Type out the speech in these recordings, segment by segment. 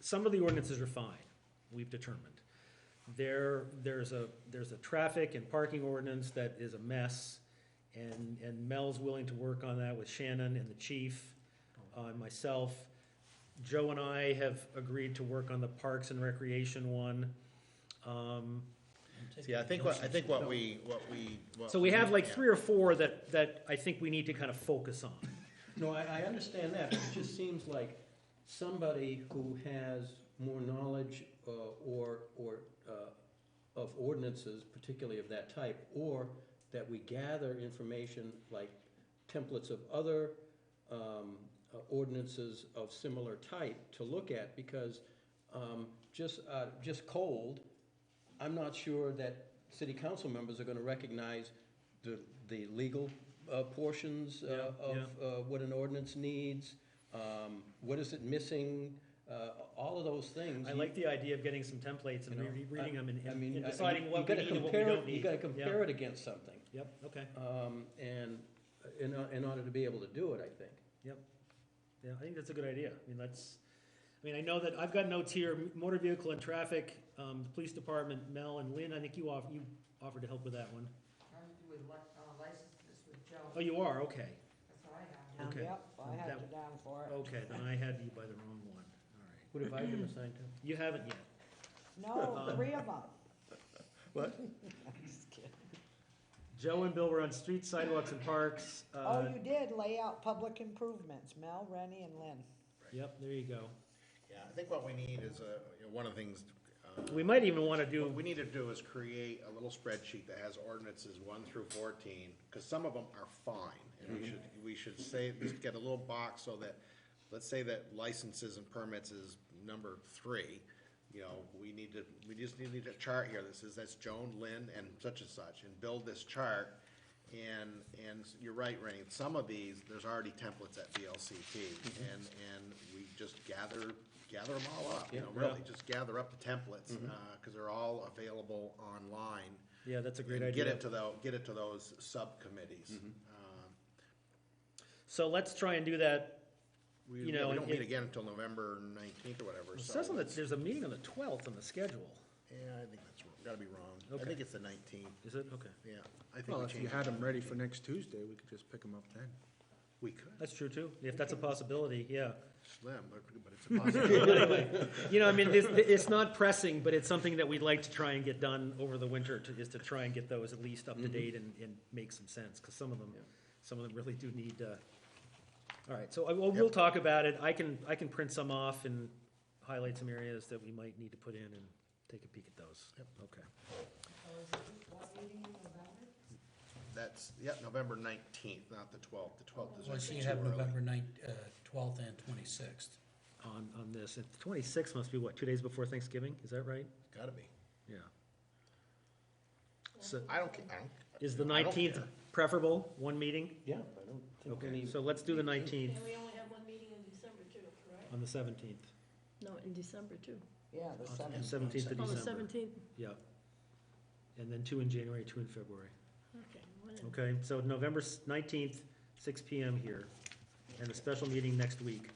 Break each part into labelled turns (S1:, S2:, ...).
S1: some of the ordinances are fine, we've determined. There, there's a, there's a traffic and parking ordinance that is a mess, and, and Mel's willing to work on that with Shannon and the chief, uh, and myself. Joe and I have agreed to work on the Parks and Recreation one. Um,
S2: See, I think what, I think what we, what we. what
S1: So we have like
S2: yeah.
S1: three or four that, that I think we need to kind of focus on.
S3: No, I, I understand that, but it just seems like somebody who has more knowledge uh, or, or uh, of ordinances, particularly of that type, or that we gather information like templates of other um, uh, ordinances of similar type to look at, because um, just, uh, just cold, I'm not sure that city council members are gonna recognize the, the legal uh, portions uh,
S1: Yeah, yeah.
S3: of uh, what an ordinance needs, um, what is it missing, uh, all of those things.
S1: I like the idea of getting some templates and
S3: You know,
S1: re- reading them and-
S3: I mean,
S1: and and
S3: I-
S1: deciding
S3: you
S1: what we
S3: gotta
S1: need and what we
S3: compare it-
S1: don't need.
S3: You gotta
S1: Yeah.
S3: compare it against something,
S1: Yep, okay,
S3: um, and, in, in order to be able to do it, I think.
S1: yep. Yeah, I think that's a good idea. I mean, that's, I mean, I know that, I've got notes here, m- motor vehicle and traffic, um, the police department, Mel and Lynn, I think you off, you offered to help with that one.
S4: I'm with li- uh, licenses with Joe,
S1: Oh, you are, okay,
S4: that's what I have.
S1: Okay.
S5: Yep, I had
S1: That- Oh.
S5: you down for it.
S1: okay, then I had you by the wrong one, all right.
S3: What have I been assigned to?
S1: You haven't yet.
S5: No, three of them.
S2: What?
S1: Joe and Bill were on streets, sidewalks, and parks.
S5: Oh,
S1: Uh,
S5: you did lay out public improvements, Mel, Rennie, and Lynn.
S1: Yep, there you go.
S2: Yeah, I think what we need is, uh, you know, one of the things, uh,
S1: We might even want to do,
S2: what we need to do is create a little spreadsheet that has ordinances one through fourteen, because some of them are fine. And we should, we should say, just get a little box so that, let's say that licenses and permits is number three. You know, we need to, we just need need a chart here that says that's Joan, Lynn, and such and such, and build this chart. And, and you're right, Rennie, some of these, there's already templates at VLCT, and, and we just gather, gather them all up, you know, really, just gather up the templates,
S1: Mm-hmm.
S2: uh, cause they're all available online.
S1: yeah, that's a great
S2: And Get it to
S1: idea. Mm-hmm.
S2: the, get it to those subcommittees. Um,
S1: So let's try and do that.
S2: We,
S1: You
S2: we
S1: know,
S2: don't
S1: it-
S2: meet again until November nineteenth or whatever,
S1: It
S2: so.
S1: says on the, there's a meeting on the twelfth on the schedule.
S2: Yeah, I think that's, wrong. gotta be wrong. I
S1: Okay.
S2: think it's the nineteenth,
S1: Is it? Okay.
S2: yeah. I think
S6: Well,
S2: we
S6: if you
S2: changed
S6: had
S2: it.
S6: them ready for next Tuesday, we could just pick them up then.
S2: We could,
S1: That's true too. If that's a possibility, yeah.
S2: slim, but- but it's a possibility.
S1: You know, I mean, it's, it's not pressing, but it's something that we'd like to try and get done over the winter to, is to try and get those at least up to date and, and make some sense, because some of them, some of them really do need, uh, all right, so I, well, we'll
S2: Yep.
S1: talk about it. I can, I can print some off and highlight some areas that we might need to put in and take a peek at those. Yep. Okay.
S4: So is it, what meeting in November?
S2: That's, yeah, November nineteenth, not the twelfth. The twelfth is
S7: Well, so
S2: actually
S7: you
S2: too
S7: have
S2: early.
S7: November ninth, uh, twelfth and twenty-sixth.
S1: On, on this, and twenty-six must be what, two days before Thanksgiving? Is that right?
S2: Gotta be.
S1: Yeah. So,
S2: I don't, ca- I don't.
S1: is the
S2: I don't
S1: nineteenth
S2: care.
S1: preferable, one meeting?
S3: Yeah, I don't think we
S1: Okay,
S3: need,
S1: so let's do the nineteenth.
S8: And we only have one meeting in December too, correct?
S1: On the seventeenth,
S8: No, in December too.
S5: Yeah, the seven.
S1: seventeenth of
S8: On the
S1: December,
S8: seventeenth,
S1: yeah. And then two in January, two in February.
S8: okay. one in-
S1: Okay, so November nineteenth, six P M here, and a special meeting next week.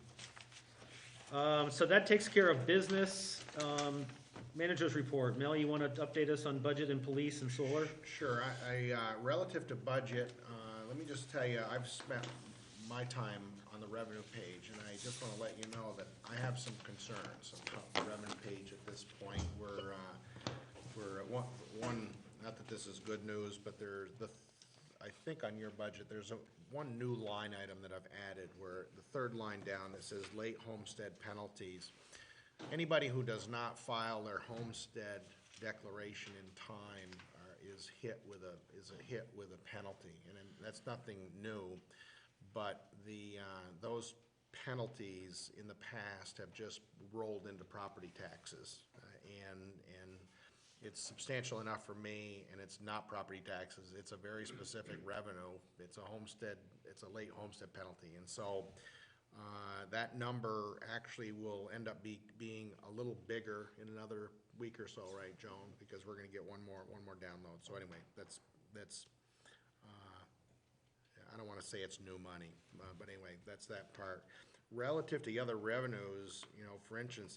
S1: Um, so that takes care of business, um, managers report, Mel, you wanna update us on budget and police and solar?
S2: Sure, I, I, uh, relative to budget, uh, let me just tell you, I've spent my time on the revenue page, and I just wanna let you know that I have some concerns about the revenue page at this point. We're, uh, we're, at one, one, not that this is good news, but there's the, I think on your budget, there's a, one new line item that I've added, where the third line down that says late homestead penalties. Anybody who does not file their homestead declaration in time are- is hit with a, is a hit with a penalty. And then that's nothing new, but the, uh, those penalties in the past have just rolled into property taxes. Uh, And, and it's substantial enough for me, and it's not property taxes. It's a very specific revenue. It's a homestead, it's a late homestead penalty. And so uh, that number actually will end up be, being a little bigger in another week or so, right, Joan? Because we're gonna get one more, one more download. So anyway, that's, that's, uh, I don't wanna say it's new money, uh, but anyway, that's that part. Relative to the other revenues, you know, for instance,